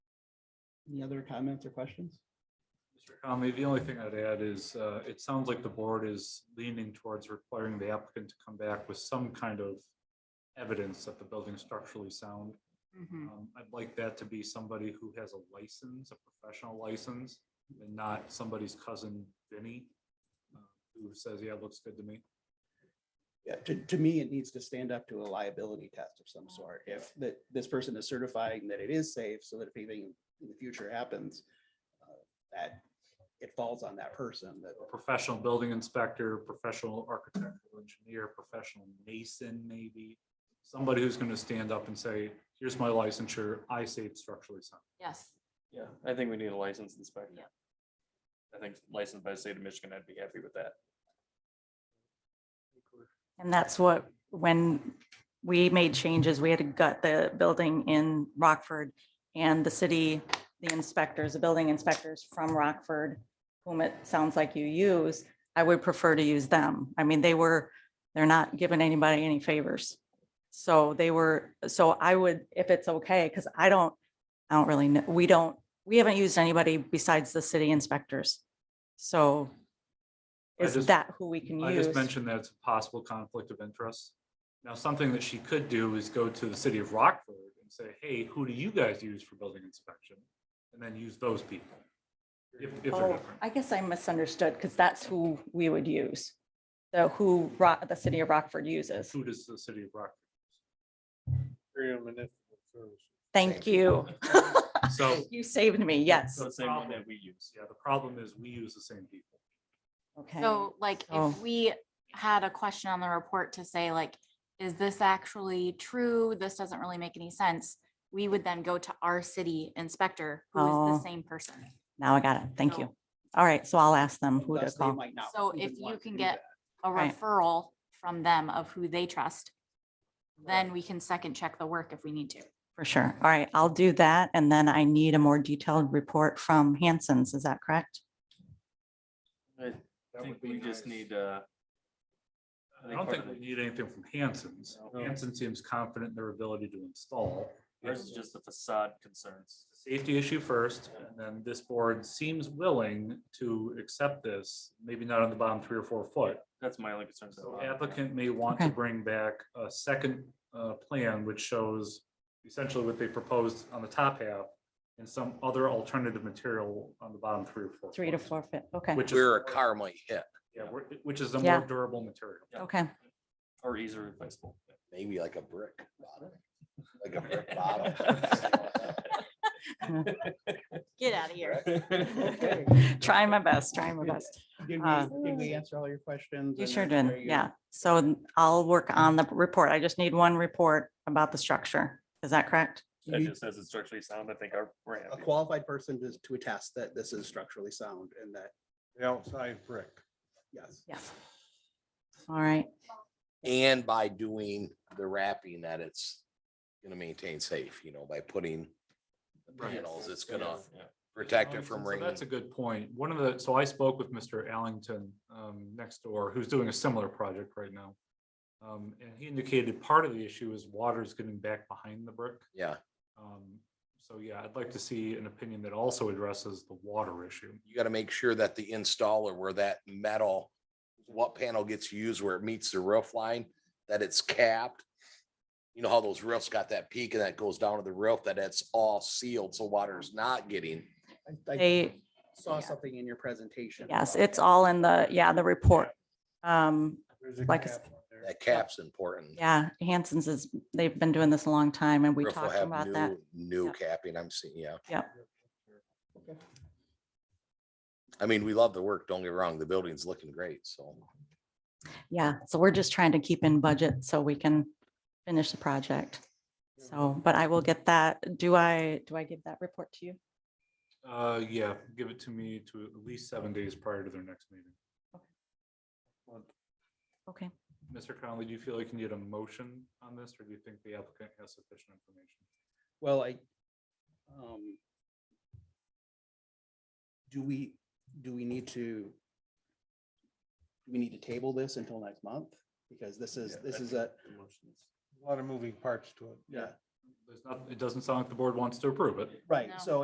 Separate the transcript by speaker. Speaker 1: Any other comments or questions?
Speaker 2: Mr. Conley, the only thing I'd add is, uh, it sounds like the board is leaning towards requiring the applicant to come back with some kind of evidence that the building's structurally sound. Um, I'd like that to be somebody who has a license, a professional license, and not somebody's cousin Vinny, uh, who says, yeah, it looks good to me.
Speaker 1: Yeah, to, to me, it needs to stand up to a liability test of some sort. If that, this person is certifying that it is safe, so that if anything in the future happens, uh, that it falls on that person, that,
Speaker 2: A Professional building inspector, professional architectural engineer, professional mason, maybe. Somebody who's gonna stand up and say, here's my licensure, I say it's structurally sound.
Speaker 3: Yes,
Speaker 4: Yeah, I think we need a licensed inspector.
Speaker 3: Yeah.
Speaker 4: I think licensed by the state of Michigan, I'd be happy with that.
Speaker 5: And that's what, when we made changes, we had to gut the building in Rockford and the city, the inspectors, the building inspectors from Rockford, whom it sounds like you use, I would prefer to use them. I mean, they were, they're not giving anybody any favors. So they were, so I would, if it's okay, because I don't, I don't really know, we don't, we haven't used anybody besides the city inspectors. So
Speaker 2: I
Speaker 5: is
Speaker 2: just-
Speaker 5: that who we can use?
Speaker 2: I just mentioned that it's a possible conflict of interest. Now, something that she could do is go to the city of Rockford and say, hey, who do you guys use for building inspection? And then use those people. If, if they're
Speaker 5: Oh,
Speaker 2: different.
Speaker 5: I guess I misunderstood because that's who we would use. The who Ro- the city of Rockford uses.
Speaker 2: Who does the city of Rockford?
Speaker 5: Thank you.
Speaker 2: use? So,
Speaker 5: You saved me. Yes.
Speaker 4: So the same one that we use.
Speaker 2: yeah, the problem is we use the same people.
Speaker 5: Okay.
Speaker 3: so like
Speaker 5: so-
Speaker 3: if we had a question on the report to say like, is this actually true? This doesn't really make any sense. We would then go to our city inspector, who is
Speaker 5: Oh.
Speaker 3: the same person.
Speaker 5: Now I got it. Thank you.
Speaker 3: So-
Speaker 5: All right. So I'll ask them who to
Speaker 1: thus they
Speaker 5: call.
Speaker 1: might not.
Speaker 3: So
Speaker 1: even
Speaker 3: if
Speaker 1: want
Speaker 3: you
Speaker 1: to
Speaker 3: can
Speaker 1: do
Speaker 3: get
Speaker 1: that.
Speaker 3: a
Speaker 5: Right.
Speaker 3: referral from them of who they trust, then we can second check the work if we need to.
Speaker 5: For sure. All right. I'll do that. And then I need a more detailed report from Hanson's. Is that correct?
Speaker 4: I
Speaker 2: That
Speaker 4: think
Speaker 2: would be
Speaker 4: we just
Speaker 2: nice.
Speaker 4: need, uh, I
Speaker 2: I don't
Speaker 4: think part
Speaker 2: think
Speaker 4: of
Speaker 2: we
Speaker 4: the-
Speaker 2: need anything from Hanson's.
Speaker 4: No.
Speaker 2: Hanson seems confident in their ability to install.
Speaker 4: ours is just the facade concerns.
Speaker 2: safety issue first, and then this board seems willing to accept this, maybe not on the bottom three or four foot.
Speaker 4: That's my only concern.
Speaker 2: So applicant may want to
Speaker 5: Okay.
Speaker 2: bring back a second uh, plan which shows essentially what they proposed on the top half and some other alternative material on the bottom three or four.
Speaker 5: Three to
Speaker 2: foot,
Speaker 5: four feet. Okay.
Speaker 2: Which is.
Speaker 6: where a car might hit,
Speaker 2: Yeah, where- which is the
Speaker 5: Yeah.
Speaker 2: more durable material.
Speaker 5: Okay.
Speaker 4: Or easily replaceable.
Speaker 6: maybe like a brick bottom, like a brick bottom.
Speaker 5: Get out of
Speaker 1: Okay.
Speaker 5: Trying my best, trying my best.
Speaker 1: Did
Speaker 5: Uh,
Speaker 1: we, did we answer all your questions?
Speaker 5: You
Speaker 1: and
Speaker 5: sure
Speaker 1: are
Speaker 5: did,
Speaker 1: you-
Speaker 5: yeah. So n- I'll work on the report. I just need one report about the structure. Is that correct?
Speaker 1: you
Speaker 4: That
Speaker 1: need
Speaker 4: just says it's structurally sound. I think our, we're
Speaker 1: A
Speaker 4: happy.
Speaker 1: qualified person to, to attest that this is structurally sound and that,
Speaker 7: The outside brick.
Speaker 1: yes.
Speaker 5: Yes. All right,
Speaker 6: And by doing the wrapping that it's gonna maintain safe, you know, by putting the
Speaker 2: Right.
Speaker 6: panels, it's gonna
Speaker 4: Yeah.
Speaker 6: protect it from
Speaker 2: Um, So
Speaker 6: rain.
Speaker 2: That's a good point. One of the, so I spoke with Mr. Allington um, next door, who's doing a similar project right now. Um, And he indicated part of the issue is water is getting back behind the brick.
Speaker 6: Yeah,
Speaker 2: Um, So yeah, I'd like to see an opinion that also addresses the water issue.
Speaker 6: you gotta make sure that the installer where that metal, what panel gets used where it meets the roof line, that it's capped. You know how those roofs got that peak and that goes down to the roof, that it's all sealed, so water's not getting
Speaker 1: I- I
Speaker 5: they,
Speaker 1: Saw
Speaker 5: yeah.
Speaker 1: something in your presentation.
Speaker 5: yes,
Speaker 1: about
Speaker 5: it's
Speaker 1: that.
Speaker 5: all in the, yeah, the report. Um, like, I s-
Speaker 6: That cap's important.
Speaker 5: yeah, Hanson's is, they've been doing this a long time and we
Speaker 6: Roof will
Speaker 5: talked
Speaker 6: have
Speaker 5: about that.
Speaker 6: new- New
Speaker 5: Yep.
Speaker 6: capping, I'm seeing, yeah.
Speaker 5: Yep.
Speaker 1: Okay.
Speaker 6: I mean, we love the work, don't get me wrong, the building's looking great, so.
Speaker 5: Yeah, so we're just trying to keep in budget so we can finish the project. So, but I will get that. Do I, do I give that report to you?
Speaker 2: Uh, Yeah, give it to me to at least seven days prior to their next meeting.
Speaker 5: Okay.
Speaker 2: Mr. Conley, do you feel like you need a motion on this, or do you think the applicant has sufficient information?
Speaker 1: Well, I, um, do we, do we need to, do we need to table this until next month? Because this is,
Speaker 4: Yeah, I
Speaker 1: this is a,
Speaker 4: think the motion is-
Speaker 7: A lot of moving parts to it.
Speaker 1: yeah,
Speaker 2: There's not, it doesn't sound like the board wants to approve it.
Speaker 1: right,
Speaker 3: No.
Speaker 1: so